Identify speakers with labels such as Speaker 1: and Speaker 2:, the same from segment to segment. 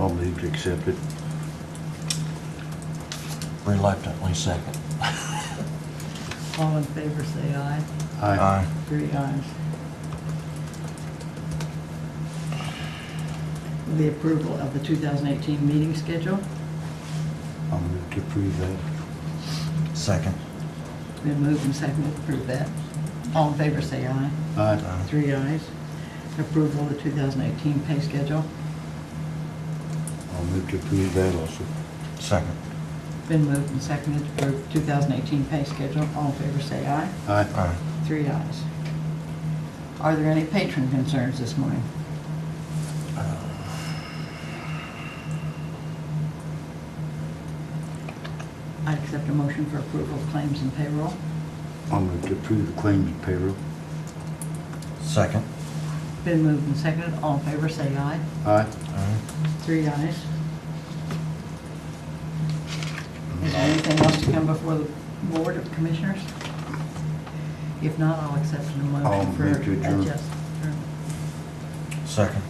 Speaker 1: move to accept it.
Speaker 2: Reluctantly second.
Speaker 3: All in favor, say aye.
Speaker 2: Aye.
Speaker 3: Three ayes. The approval of the 2018 meeting schedule.
Speaker 1: I'll move to approve that.
Speaker 2: Second.
Speaker 3: Been moved and seconded to approve that. All in favor, say aye.
Speaker 1: Aye.
Speaker 3: Three ayes. Approval of the 2018 pay schedule.
Speaker 1: I'll move to approve that also.
Speaker 2: Second.
Speaker 3: Been moved and seconded to approve 2018 pay schedule. All in favor, say aye.
Speaker 1: Aye.
Speaker 2: Aye.
Speaker 3: Three ayes. Are there any patron concerns this morning? I accept a motion for approval of claims and payroll.
Speaker 1: I'll move to approve the claims and payroll.
Speaker 2: Second.
Speaker 3: Been moved and seconded. All in favor, say aye.
Speaker 1: Aye.
Speaker 2: Aye.
Speaker 3: Three ayes. Is there anything else to come before the Board of Commissioners? If not, I'll accept a
Speaker 1: I'll
Speaker 3: motion for
Speaker 1: move to adjourn.
Speaker 3: adjust.
Speaker 2: Second.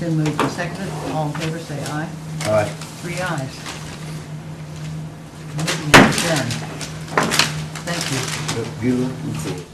Speaker 3: Been moved and seconded. All in favor, say aye.
Speaker 1: Aye.
Speaker 3: Three ayes. Meeting is adjourned. Thank you.
Speaker 1: Good looking for it.